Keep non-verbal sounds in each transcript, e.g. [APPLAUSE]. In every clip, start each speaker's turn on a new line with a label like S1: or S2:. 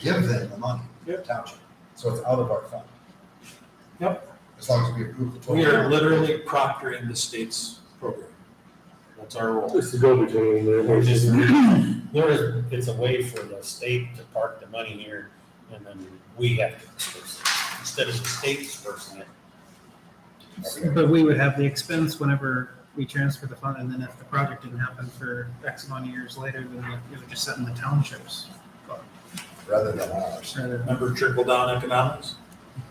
S1: give them the money, the
S2: Yep.
S1: township, so it's out of our fund. Yep. As long as we approve the total.
S2: We are literally proctoring the state's program. That's our role.
S3: It's the go-between there.
S4: We're just,
S3: basically.
S4: there is, it's a way for the state to park the money here and then we have to disperse it, instead of the state dispersing it.
S5: But we would have the expense whenever we transfer the fund, and then if the project didn't happen for X amount of years later, then it- it would just sit in the [CLEARS THROAT] townships.
S1: Rather than ours,
S5: rather than-
S2: Remember trickle down economics?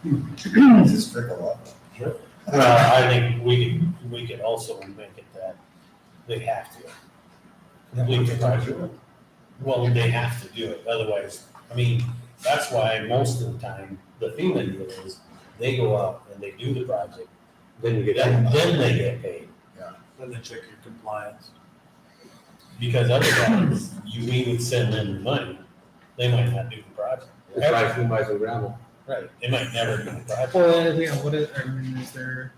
S1: It's just trickle up.
S4: Well, I think we could, we could also make it that they have to. complete the project. Well, they have to do it, otherwise, I mean, that's why most of the time, the FEMA deal is, they go out and they do the project,
S3: Then you get.
S4: then, then they get paid.
S2: Then they check your compliance.
S4: Because otherwise, you, we would send them the money, they might not do the project.
S3: It's like who buys the gravel.
S4: Right. They might never do the project.
S5: Well, yeah, what is, I mean, is there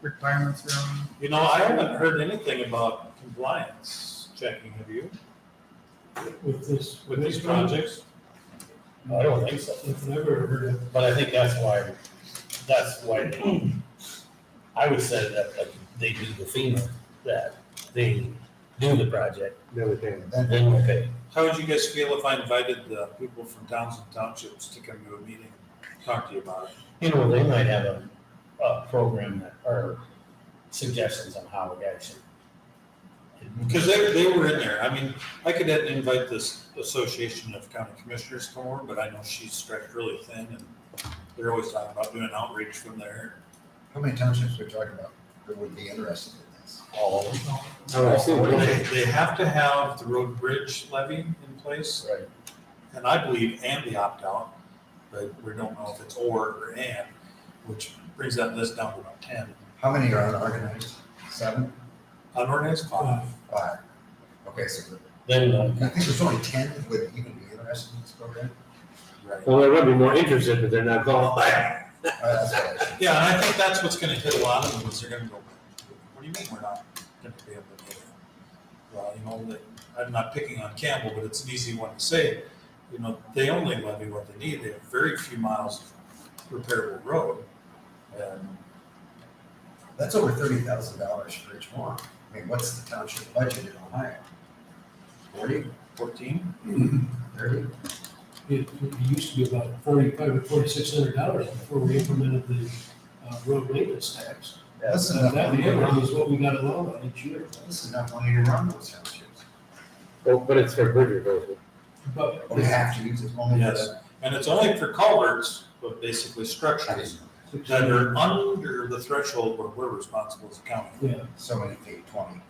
S5: requirements around?
S2: You know, I haven't heard anything about compliance checking, have you,
S6: with this.
S2: with these projects?
S4: I don't think so.
S6: I've never heard of
S4: But I think that's why, that's why they, I would say that like they do the FEMA, that they do the project,
S3: Never can.
S1: Then
S4: then we pay.
S2: How would you guys feel if I invited the people from towns and townships to come to a meeting, and talk to you about it?
S4: You know, they might have a, a program that, or suggestions on how we actually.
S2: Because they, they were in there, I mean, I could invite this Association of County Commissioners to more, but I know she's stretched really thin, and they're always talking about doing outreach from there.
S1: How many townships are we talking about that would be interested in this?
S4: All of
S3: I would assume,
S2: They,
S3: okay.
S2: they have to have the road bridge levy in place,
S4: Right.
S2: and I believe and the opt-out, but we don't know if it's or or and, which brings that list down to about ten.
S1: How many are unorganized? Seven?
S2: Unorganized five.
S1: Five? Okay, so
S4: Then, uh,
S1: I think there's only ten that would even be interested in this program.
S2: Right.
S3: Well, there would be more interested, but they're not going.
S1: Uh, that's what I should-
S2: Yeah, and I think that's what's gonna hit a lot of them, is they're gonna go, what do you mean we're not gonna be able to do it? Well, you know, they- I'm not picking on Campbell, but it's an easy one to say, you know, they only levy what they need, they have very few miles of repairable road. And
S1: That's over thirty thousand dollars for each one. I mean, what's the township budget in Ohio? Forty,
S2: fourteen,
S1: thirty?
S6: it, it used to be about forty-five or forty-six hundred dollars before we implemented the, uh, road maintenance tax.
S1: Yeah, This is
S6: And
S1: enough
S6: that
S1: money to
S6: year
S1: run,
S6: was what we got along on each year.
S1: this is enough money to run those townships.
S3: Oh, but it's their budget, though.
S6: But
S1: But we have to use it only for
S2: yes,
S1: that.
S2: and it's only for culverts, but basically structures that are under the threshold where we're responsible as a county,
S6: Yeah,
S1: So many feet, twenty.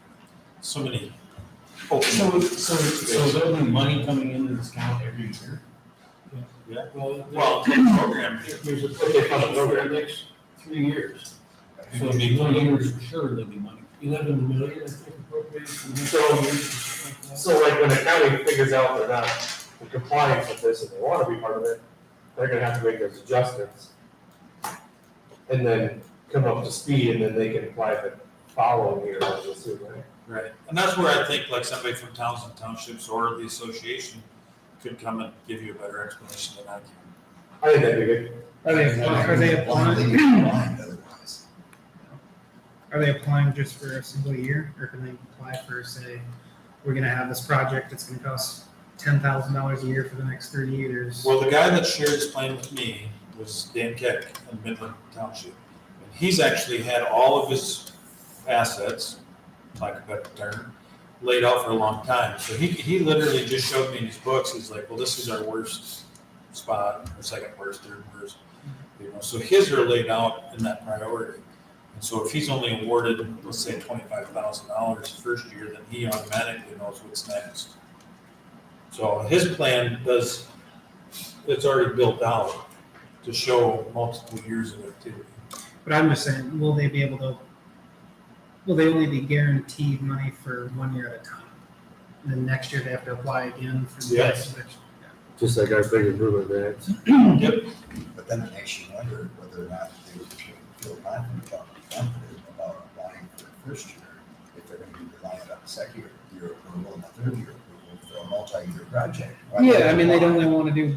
S2: so many. open-
S4: so, so, so there'll be money coming into this account every year?
S6: well.
S2: Well, the program,
S6: There's a program for the next three years,
S4: So it'll be one year for sure there'll be money.
S6: eleven million, I think, appropriated. for the next
S3: So-
S6: three years, something like that.
S3: So like when the county figures out they're not in compliance with this and they wanna be part of it, they're gonna have to make those adjustments. And then come up to speed and then they can apply the following year, I would assume, right?
S2: Right, and that's where I think like somebody from towns and townships or the association could come and give you a better explanation than I can.
S3: I think that'd be good.
S5: Are they, are they
S1: Blindly
S5: applying,
S1: blind otherwise.
S5: are they applying just for a single year, or can they apply for, say, we're gonna have this project, it's gonna cost ten thousand dollars a year for the next thirty years?
S2: Well, the guy that shared his plan with me was Dan Keck in Midland Township. And he's actually had all of his assets, like a better term, laid out for a long time. So he, he literally just showed me in his books, he's like, well, this is our worst spot, or second worst, third worst. You know, so his are laid out in that priority. And so if he's only awarded, let's say, twenty-five thousand dollars first year, then he automatically knows what's next. So his plan does, it's already built out to show multiple years of activity.
S5: But I'm just saying, will they be able to? Will they only be guaranteed money for one year at a time? And then next year they have to apply again for the
S2: Yes.
S5: next. Yes.
S3: Just like our big improvement grant.
S1: But then it makes you wonder whether or not they would feel confident about, confident about applying for the first year if they're gonna be reliant on the second year approval and the third year approval for a multi-year project. Why would
S5: Yeah, I mean, they
S1: apply?
S5: don't only want to do